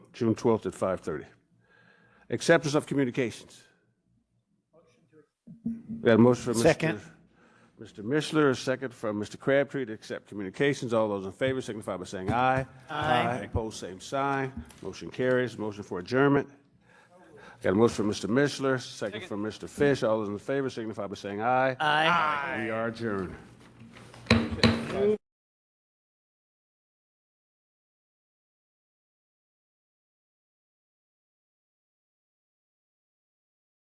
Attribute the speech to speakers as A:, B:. A: June 12th at 5:30. Acceptance of communications. We got a motion from Mr.
B: Second.
A: Mr. Mishler, a second from Mr. Crabtree to accept communications. All those in favor signify by saying aye. Aye. Opposed, same sign. Motion carries. Motion for adjournment. Got a motion from Mr. Mishler, second from Mr. Fish. All those in favor signify by saying aye. Aye. We are adjourned.